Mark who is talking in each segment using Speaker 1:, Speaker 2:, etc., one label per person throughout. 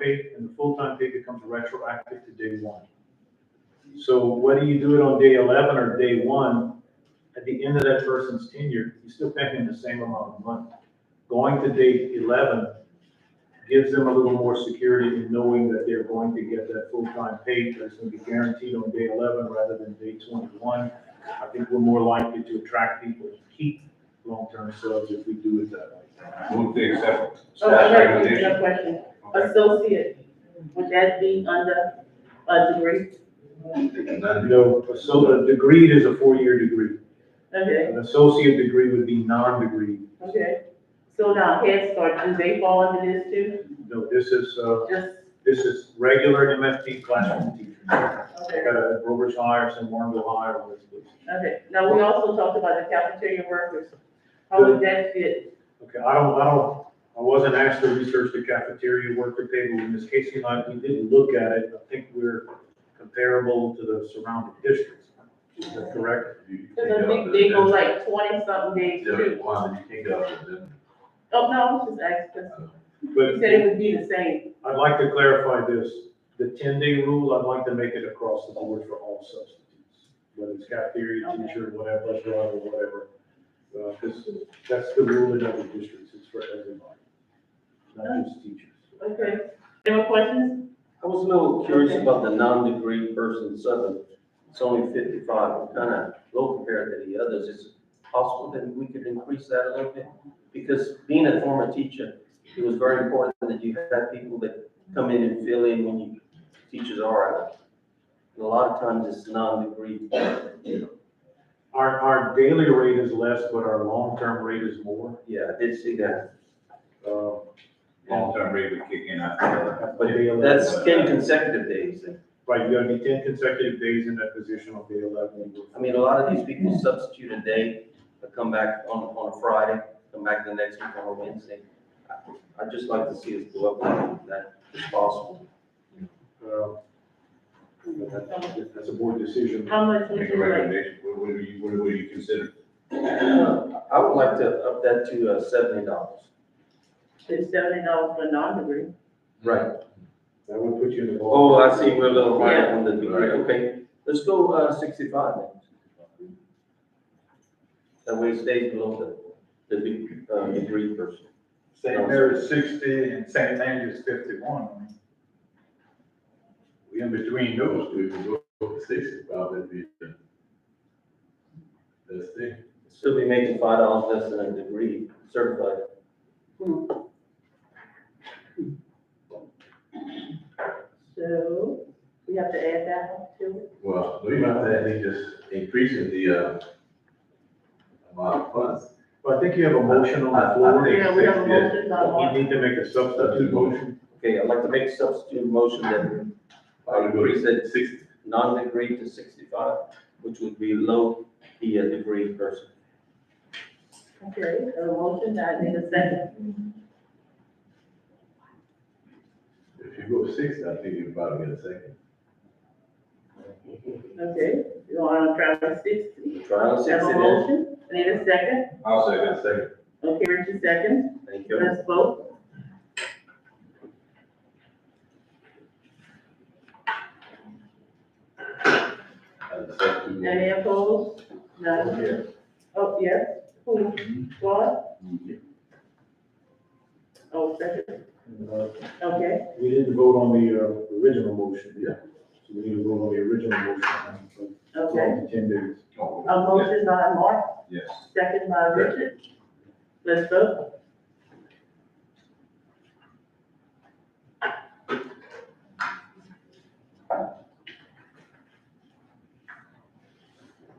Speaker 1: pay, and the full-time pay becomes retroactive to day one. So whether you do it on day eleven or day one, at the end of that person's tenure, you still pay him the same amount of money. Going to day eleven gives them a little more security in knowing that they're going to get that full-time pay, that's gonna be guaranteed on day eleven rather than day twenty-one. I think we're more likely to attract people to keep long-term subs if we do it that way.
Speaker 2: Move to accept.
Speaker 3: Oh,
Speaker 2: staff
Speaker 3: I have a
Speaker 2: recommendation.
Speaker 3: question.
Speaker 2: Okay.
Speaker 3: Associate, would that be under a degree?
Speaker 2: None.
Speaker 1: No, so a degree is a four-year degree.
Speaker 3: Okay,
Speaker 1: An associate degree would be non-degree.
Speaker 3: okay. So now Head Start, do they fall under this too?
Speaker 1: No, this is, uh,
Speaker 3: Just,
Speaker 1: this is regular MFT classroom teaching. I
Speaker 3: okay,
Speaker 1: got a Roberts Hires and Warrenville Hire on this list.
Speaker 3: okay. Now, we also talked about the cafeteria workers. How would that fit?
Speaker 1: Okay, I don't, I don't, I wasn't asked to research the cafeteria worker pay, but when Ms. Casey and I, we did look at it, I think we're comparable to the surrounding districts. Is that correct?
Speaker 3: Cause I think they go like twenty something days too. Oh, no, I was just asking,
Speaker 1: But
Speaker 3: you said it would be the same.
Speaker 1: I'd like to clarify this, the ten-day rule, I'd like to make it across the board for all substitutes, whether it's cafeteria,
Speaker 3: Okay.
Speaker 1: teacher, whatever, bus driver, whatever. Uh, because that's the rule in other districts, it's for everybody, not just teachers.
Speaker 3: Okay. Any more questions?
Speaker 4: I was a little curious about the non-degree person seven. It's only fifty-five, kind of low compared to the others. Is it possible that we could increase that a little bit? Because being a former teacher, it was very important that you had people that come in and fill in when you, teachers are out. And a lot of times it's non-degree.
Speaker 1: Our, our daily rate is less, but our long-term rate is more,
Speaker 4: Yeah, I did see that.
Speaker 1: uh,
Speaker 2: Long-term rate would kick in after.
Speaker 1: but day eleven.
Speaker 4: That's ten consecutive days.
Speaker 1: Right, you gotta be ten consecutive days in that position on day eleven.
Speaker 4: I mean, a lot of these people substitute a day, but come back on, on a Friday, come back the next week on a Wednesday. I- I'd just like to see us go up on that if possible.
Speaker 1: Uh, that- That's a board decision.
Speaker 3: How much would
Speaker 2: Make a
Speaker 3: you like?
Speaker 2: recommendation, what would you, what would you consider?
Speaker 4: Uh, I would like to up that to uh, seventy dollars.
Speaker 3: It's seventy dollars for non-degree.
Speaker 4: Right.
Speaker 1: That would put you in the.
Speaker 4: Oh,
Speaker 1: ballpark.
Speaker 4: I see, we're a little high
Speaker 3: Yeah.
Speaker 4: on the degree, okay. Let's go uh, sixty-five then. That way it stays below the, the de- uh, degree person.
Speaker 5: St. Mary's sixty and St. Andrew's fifty-one. I mean, We in between those, we would go to sixty probably. Let's see.
Speaker 4: Still be making five dollars less than a degree certified.
Speaker 3: So we have to add that one to it.
Speaker 5: Well, we might have to just increasing the, uh, amount of funds.
Speaker 1: Well, I think you have a motion on the
Speaker 5: I- I
Speaker 1: floor.
Speaker 5: think-
Speaker 3: Yeah, we have a motion on
Speaker 1: You need to make a substitute
Speaker 5: Substitute
Speaker 1: motion.
Speaker 5: motion,
Speaker 4: Okay, I'd like to make substitute motion that
Speaker 5: I would go
Speaker 4: Increase it.
Speaker 5: to sixty.
Speaker 4: non-degree to sixty-five, which would be low the uh, degree person.
Speaker 3: one. Okay, a motion, I need a second.
Speaker 5: If you go to sixty, I think you probably get a second.
Speaker 3: Okay, you want to try for sixty?
Speaker 4: Trial
Speaker 3: Have
Speaker 4: and
Speaker 3: a
Speaker 4: sixty then.
Speaker 3: motion, I need a second.
Speaker 2: I'll
Speaker 5: I got a second.
Speaker 3: Okay, Richard second.
Speaker 4: Thank you.
Speaker 3: Let's vote.
Speaker 5: I got a
Speaker 2: Mm-hmm.
Speaker 5: substitute motion.
Speaker 3: Any opposed? None.
Speaker 5: Yeah.
Speaker 3: Oh, yes. Who? What? Oh, second.
Speaker 1: Uh,
Speaker 3: Okay.
Speaker 1: We didn't vote on the uh, original motion.
Speaker 5: Yeah.
Speaker 1: So we need to vote on the original motion.
Speaker 3: Okay.
Speaker 1: For Ten days.
Speaker 2: Oh,
Speaker 3: A motion by Mark,
Speaker 2: Yes.
Speaker 3: second by Richard. Let's vote.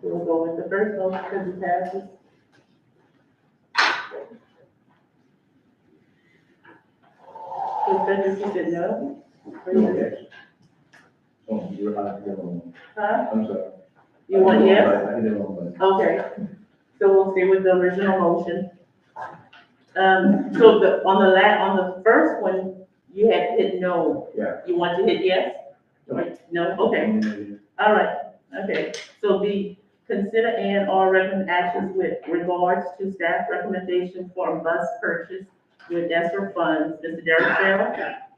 Speaker 3: We'll go with the first motion because it passes. So Spencer, you said no?
Speaker 6: Okay. Oh, you're, I did it wrong.
Speaker 3: Huh?
Speaker 6: I'm sorry.
Speaker 3: You want yes?
Speaker 6: I did it wrong, but.
Speaker 3: Okay, so we'll stay with the original motion. Um, so the, on the la, on the first one, you had hit no.
Speaker 6: Yeah.
Speaker 3: You want to hit yes? Or No, okay, all right, okay. So B, consider and or recommend actions with regards to staff recommendation for a bus purchase with ESSER funds. Mr. Derek Farrell?